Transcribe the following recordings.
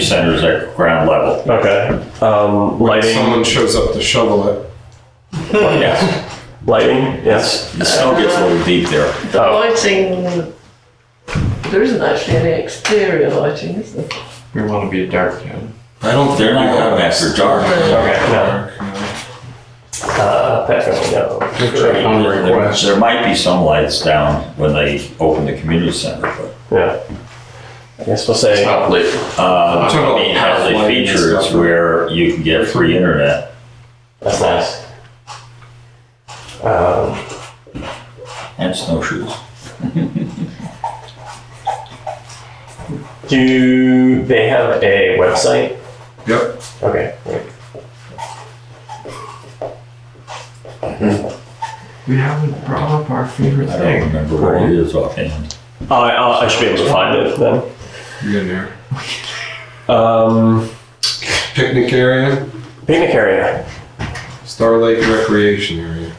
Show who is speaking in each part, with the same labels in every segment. Speaker 1: center's at ground level.
Speaker 2: Okay. Um,
Speaker 3: When
Speaker 2: lighting,
Speaker 3: someone shows up to shovel it,
Speaker 1: Yes,
Speaker 2: lighting, yes.
Speaker 1: the snow gets a little deep there.
Speaker 4: The
Speaker 2: Oh.
Speaker 4: lighting, there isn't actually any exterior lighting, is there?
Speaker 5: We want to be a dark town.
Speaker 1: I don't, they're not going after dark.
Speaker 2: Okay, no. Uh, Patrick, no.
Speaker 5: On request.
Speaker 1: There might be some lights down when they open the community center, but,
Speaker 2: Yeah. I guess we'll say,
Speaker 5: Stop late.
Speaker 1: uh,
Speaker 3: Turn
Speaker 1: I
Speaker 3: off
Speaker 1: mean, has a
Speaker 3: the lighting and
Speaker 1: feature is
Speaker 3: stuff.
Speaker 1: where you can get free internet.
Speaker 2: that's nice. Um,
Speaker 1: And snowshoes.
Speaker 2: do they have a website?
Speaker 3: yep,
Speaker 2: Okay. great.
Speaker 5: We haven't brought up our favorite
Speaker 1: I don't
Speaker 5: thing.
Speaker 1: remember what it is offhand.
Speaker 2: Oh, I, I'll- I should be able to find it then.
Speaker 3: you're in there.
Speaker 2: Um,
Speaker 3: Picnic area,
Speaker 2: picnic area.
Speaker 3: Star Lake Recreation Area.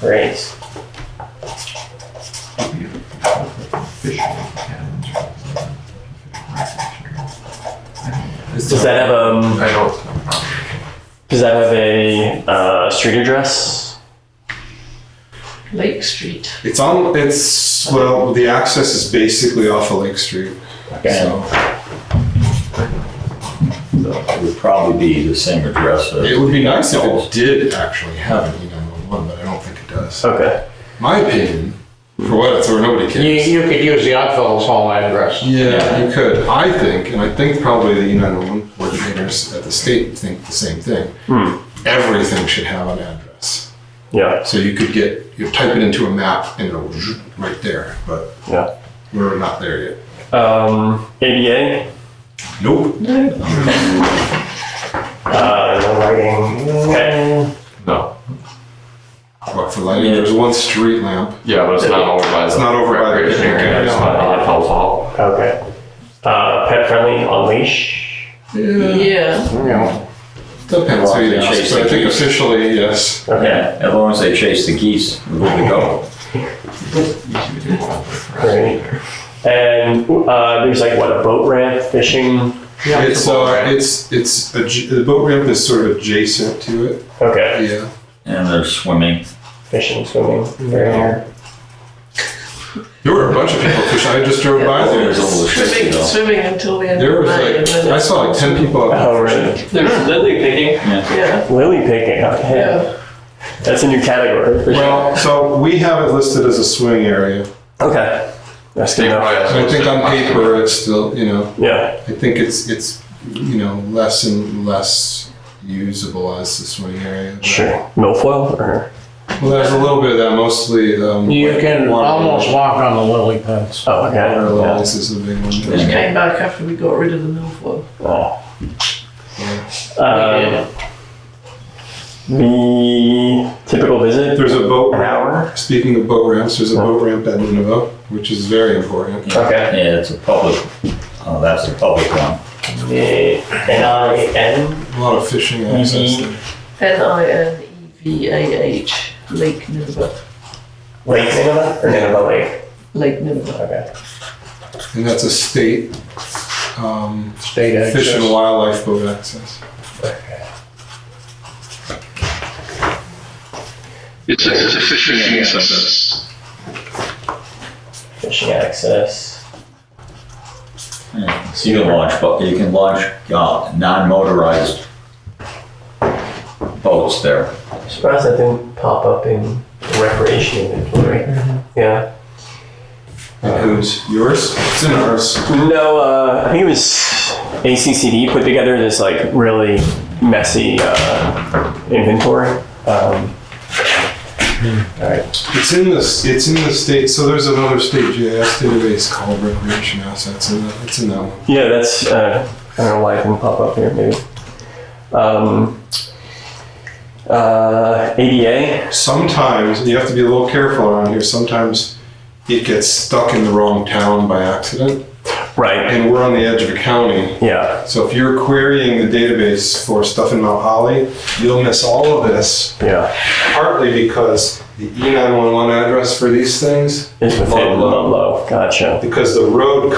Speaker 2: Great.
Speaker 5: Official calendar.
Speaker 2: Does that have um?
Speaker 5: I don't.
Speaker 2: Does that have a uh, street address?
Speaker 4: Lake Street.
Speaker 3: It's on, it's, well, the access is basically off of Lake Street,
Speaker 1: And
Speaker 3: so
Speaker 1: it would probably be the same address
Speaker 3: it
Speaker 1: as,
Speaker 3: would be nice if it did actually have an E nine one one, but I don't think it does.
Speaker 2: Okay.
Speaker 3: My opinion, for what it's worth, nobody
Speaker 6: You,
Speaker 3: cares.
Speaker 6: you could use the Oddfellows Hall address.
Speaker 3: Yeah, you could. I think, and I think probably the United One coordinators at the state think the same thing. Everything should have an address.
Speaker 2: Yeah.
Speaker 3: So you could get, you type it into a map and it'll zhoop right there, but
Speaker 2: Yeah.
Speaker 3: we're not there yet.
Speaker 2: Um, ADA.
Speaker 3: Nope.
Speaker 2: Uh, no lighting. Okay.
Speaker 5: No.
Speaker 3: What for lighting?
Speaker 1: Yeah.
Speaker 3: There's one street lamp.
Speaker 5: Yeah, but it's not over by the.
Speaker 3: It's not over by the
Speaker 5: recreation
Speaker 3: picnic
Speaker 5: area.
Speaker 3: area.
Speaker 5: It's by Oddfellows Hall.
Speaker 2: Okay. Uh, pet friendly on leash.
Speaker 3: Yeah.
Speaker 4: Yeah,
Speaker 6: Yeah.
Speaker 3: Depends who you
Speaker 1: Well,
Speaker 3: ask, but I think officially, yes.
Speaker 2: Okay.
Speaker 1: yeah, as long as they chase the geese, we're good to go.
Speaker 5: Easy to do all the rest.
Speaker 2: Great. And uh, there's like what a boat ramp, fishing.
Speaker 3: It's,
Speaker 5: boat
Speaker 3: uh,
Speaker 5: ramp.
Speaker 3: it's, it's, adj- the boat ramp is sort of adjacent to it.
Speaker 2: Okay.
Speaker 3: Yeah.
Speaker 1: And they're swimming.
Speaker 2: Fishing, swimming. Yeah.
Speaker 3: There were a bunch of people fishing. I just drove by there.
Speaker 1: There's a little shifty
Speaker 4: swimming,
Speaker 1: though.
Speaker 4: swimming until the end
Speaker 3: There
Speaker 4: of
Speaker 3: was
Speaker 4: May. and
Speaker 3: like,
Speaker 4: then
Speaker 3: I
Speaker 4: it's-
Speaker 3: saw like ten people out
Speaker 2: Oh, right.
Speaker 5: There's lily picking.
Speaker 4: Yeah,
Speaker 2: Lily picking. Okay.
Speaker 4: yeah.
Speaker 2: That's a new category. For sure.
Speaker 3: Well, so we have it listed as a swing area.
Speaker 2: Okay. That's good
Speaker 5: They
Speaker 2: enough.
Speaker 5: probably have
Speaker 3: And I think on paper, it's still, you know,
Speaker 2: Yeah.
Speaker 3: I think it's, it's, you know, less and less usable as the swing area. but-
Speaker 2: Sure. Milfoil or
Speaker 3: Well, there's a little bit of that, mostly, um.
Speaker 6: You can
Speaker 3: water-
Speaker 6: almost walk on the lily pads.
Speaker 2: oh okay.
Speaker 3: Water
Speaker 2: Yeah.
Speaker 3: lilies is a big one.
Speaker 4: Which came back after we got rid of the milfoil.
Speaker 6: uh,
Speaker 2: Oh.
Speaker 4: We
Speaker 2: Um,
Speaker 4: did.
Speaker 2: the typical visit
Speaker 3: There's a boat
Speaker 2: an
Speaker 3: ramp.
Speaker 2: hour.
Speaker 3: Speaking of boat ramps, there's a boat ramp at Nunavut, which is very important.
Speaker 2: Okay.
Speaker 1: Yeah, it's a public, oh, that's the public one.
Speaker 2: N I N.
Speaker 3: A lot of fishing access there.
Speaker 4: E N-I-N-E-V-A-H, Lake Nineveh,
Speaker 2: Lake Nineveh or Nineveh Lake.
Speaker 4: Lake Nineveh.
Speaker 2: Okay.
Speaker 3: And that's a state, um,
Speaker 6: State
Speaker 3: fish and
Speaker 6: access.
Speaker 3: wildlife boat access.
Speaker 7: It's a, it's a fishing access.
Speaker 2: Fishing access.
Speaker 1: Yeah, So you can launch, bo- you can launch uh, non-motorized boats there.
Speaker 2: I'm surprised that didn't pop up in recreation inventory.
Speaker 6: Mm-hmm.
Speaker 2: Yeah.
Speaker 3: And whose? Uh, Yours? It's in ours.
Speaker 2: No, uh, I think it was ACCD put together this like really messy uh, inventory. Um, all right.
Speaker 3: It's in this. It's in the state. So there's another state GIS database called Recreation Assets, and that- it's in that one.
Speaker 2: Yeah, that's. Uh, I don't know why it didn't pop up here. Maybe. Um, uh, ADA.
Speaker 3: Sometimes and you have to be a little careful around here. Sometimes it gets stuck in the wrong town by accident,
Speaker 2: Right.
Speaker 3: and we're on the edge of a county.
Speaker 2: Yeah.
Speaker 3: So if you're querying the database for stuff in Mount Holly, you'll miss all of this.
Speaker 2: Yeah.
Speaker 3: Partly because the E E911 address for these things,
Speaker 2: It's within
Speaker 3: Ludlow.
Speaker 2: Ludlow. Gotcha.
Speaker 3: because the road